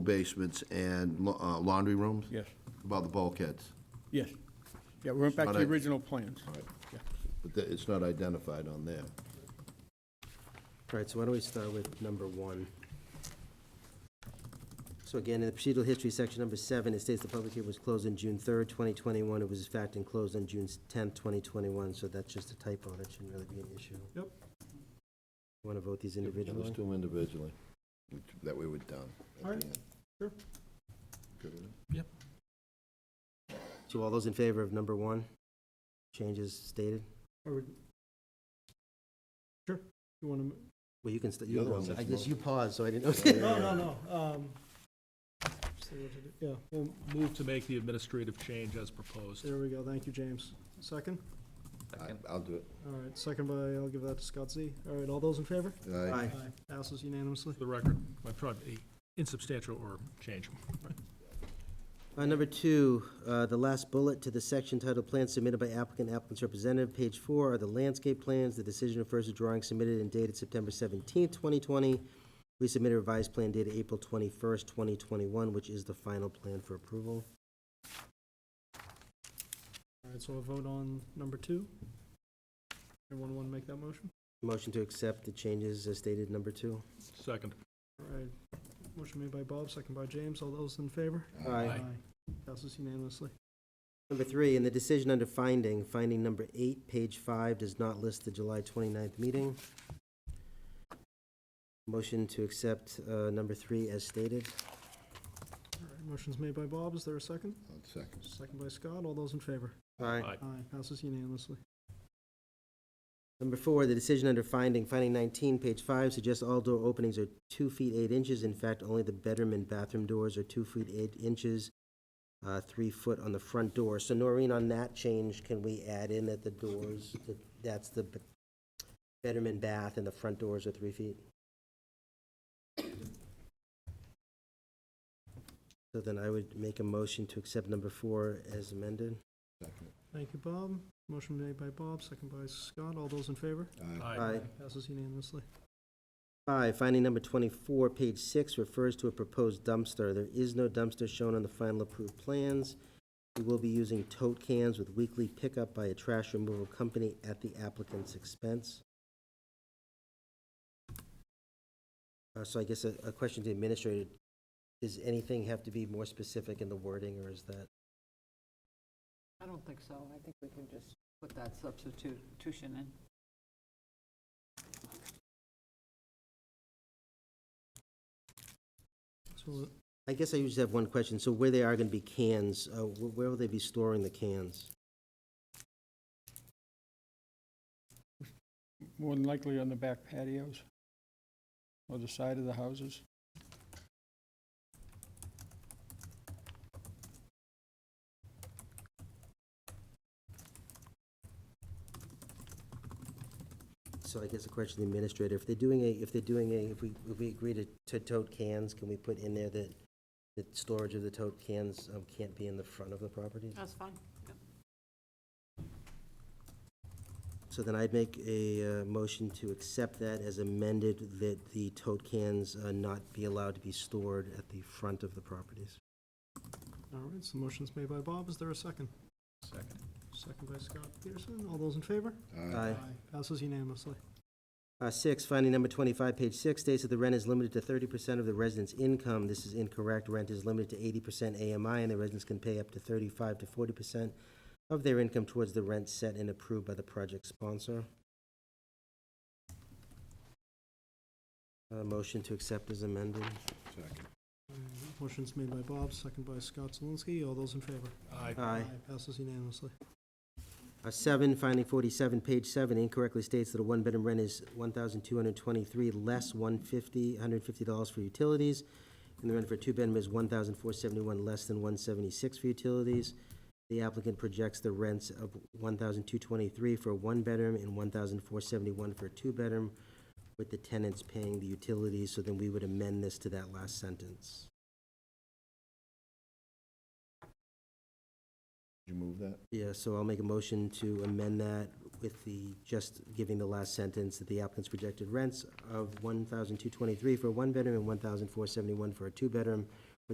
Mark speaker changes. Speaker 1: basements and la- uh, laundry rooms?
Speaker 2: Yes,
Speaker 1: About the bulkheads,
Speaker 2: yes. Yeah, we went back to the
Speaker 1: Alright.
Speaker 2: original plans.
Speaker 1: but that- it's not identified on there.
Speaker 3: All right, so why don't we start with number one? So again, in the procedural history section, number seven, it states the public hearing was closed on June third, twenty twenty-one. It was in fact and closed on June tenth, twenty twenty-one, so that's just a typo. That shouldn't really be an issue.
Speaker 2: Yep.
Speaker 3: Want to vote these
Speaker 1: Yeah, Let's
Speaker 3: individually?
Speaker 1: do them individually, which- that way we're done. at the
Speaker 2: Alright,
Speaker 1: end.
Speaker 2: sure.
Speaker 1: Good with it?
Speaker 3: So all those in favor of number one? Changes stated?
Speaker 2: Or would- Sure, you want to?
Speaker 3: Well, you can, st-
Speaker 1: The
Speaker 3: you
Speaker 1: other
Speaker 3: know.
Speaker 1: one's a
Speaker 3: I guess
Speaker 1: small-
Speaker 3: you paused, so I didn't
Speaker 1: Yeah.
Speaker 3: know.
Speaker 2: No, no, no. um, see what to do. Yeah, well,
Speaker 4: Move to make the administrative change as proposed.
Speaker 2: there we go. Thank you, James. Second?
Speaker 1: I- I'll do it.
Speaker 2: All right, second by, I'll give that to Scott Z. All right, all those in favor?
Speaker 1: Aye.
Speaker 3: Aye.
Speaker 2: Passes unanimously.
Speaker 4: For the record, my probably insubstantial or change.
Speaker 3: Uh, Number two, uh, the last bullet to the section titled "Plans Submitted by Applicant, Applicant's Representative," page four are the landscape plans. The decision refers to drawings submitted and dated September seventeenth, twenty twenty. We submitted a revised plan dated April twenty-first, twenty twenty-one, which is the final plan for approval.
Speaker 2: All right, so a vote on number two. Anyone want to make that motion?
Speaker 3: Motion to accept the changes as stated, number two.
Speaker 4: Second.
Speaker 2: All right, motion made by Bob, second by James. All those in favor?
Speaker 3: Aye.
Speaker 2: Passes unanimously.
Speaker 3: Number three, in the decision under finding, finding number eight, page five, does not list the July 29th meeting. Motion to accept uh, number three as stated.
Speaker 2: All right, motion's made by Bob. Is there a second?
Speaker 1: I'll second.
Speaker 2: Second by Scott. All those in favor?
Speaker 3: Aye.
Speaker 4: Aye.
Speaker 2: Aye, passes unanimously.
Speaker 3: Number four, the decision under finding, finding nineteen, page five, suggests all door openings are two feet eight inches. In fact, only the bedroom and bathroom doors are two feet eight inches, uh, three foot on the front door. So Noreen, on that change, can we add in that the doors, that that's the b- bedroom and bath and the front doors are three feet? So then I would make a motion to accept number four as amended.
Speaker 1: Second.
Speaker 2: Thank you, Bob. Motion made by Bob, second by Scott. All those in favor?
Speaker 1: Aye.
Speaker 4: Aye.
Speaker 2: Passes unanimously.
Speaker 3: Five, finding number twenty-four, page six, refers to a proposed dumpster. There is no dumpster shown on the final approved plans. We will be using tote cans with weekly pickup by a trash removal company at the applicant's expense. Uh, so I guess a, a question to the administrator, does anything have to be more specific in the wording, or is that?
Speaker 5: I don't think so. I think we can just put that substitution in.
Speaker 2: So,
Speaker 3: I guess I just have one question. So where they are gonna be cans, uh, wh- where will they be storing the cans?
Speaker 6: More than likely on the back patios or the side of the houses.
Speaker 3: So I guess the question to the administrator, if they're doing a, if they're doing a, if we, if we agree to, to tote cans, can we put in there that the storage of the tote cans um, can't be in the front of the property?
Speaker 5: That's fine.
Speaker 3: So then I'd make a uh, motion to accept that as amended, that the tote cans uh, not be allowed to be stored at the front of the properties.
Speaker 2: all right, so motion's made by Bob. Is there a second?
Speaker 4: Second.
Speaker 2: Second by Scott Peterson. All those in favor?
Speaker 3: Aye.
Speaker 2: Passes unanimously.
Speaker 3: Uh, Six, finding number 25, page six, states that the rent is limited to 30% of the resident's income. This is incorrect. Rent is limited to 80% AMI, and the residents can pay up to 35 to 40% of their income towards the rent set and approved by the project sponsor. Uh, Motion to accept is amended.
Speaker 1: Second.
Speaker 2: All right,
Speaker 3: Mm-hmm.
Speaker 2: Motion's made by Bob, second by Scott Zelinski. All those in favor?
Speaker 4: Aye.
Speaker 3: Aye.
Speaker 2: Passes unanimously.
Speaker 3: Uh, Seven, finding 47, page seven, incorrectly states that a one-bedroom rent is 1,223 less 150, $150 for utilities, and the rent for a two-bedroom is 1,471 less than 176 for utilities. The applicant projects the rents of 1,223 for a one-bedroom and 1,471 for a two-bedroom, with the tenants paying the utilities, so then we would amend this to that last sentence.
Speaker 1: Did you move that?
Speaker 3: Yeah, so I'll make a motion to amend that with the, just giving the last sentence that the applicant's projected rents of one thousand two twenty-three for a one-bedroom and one thousand four seventy-one for a two-bedroom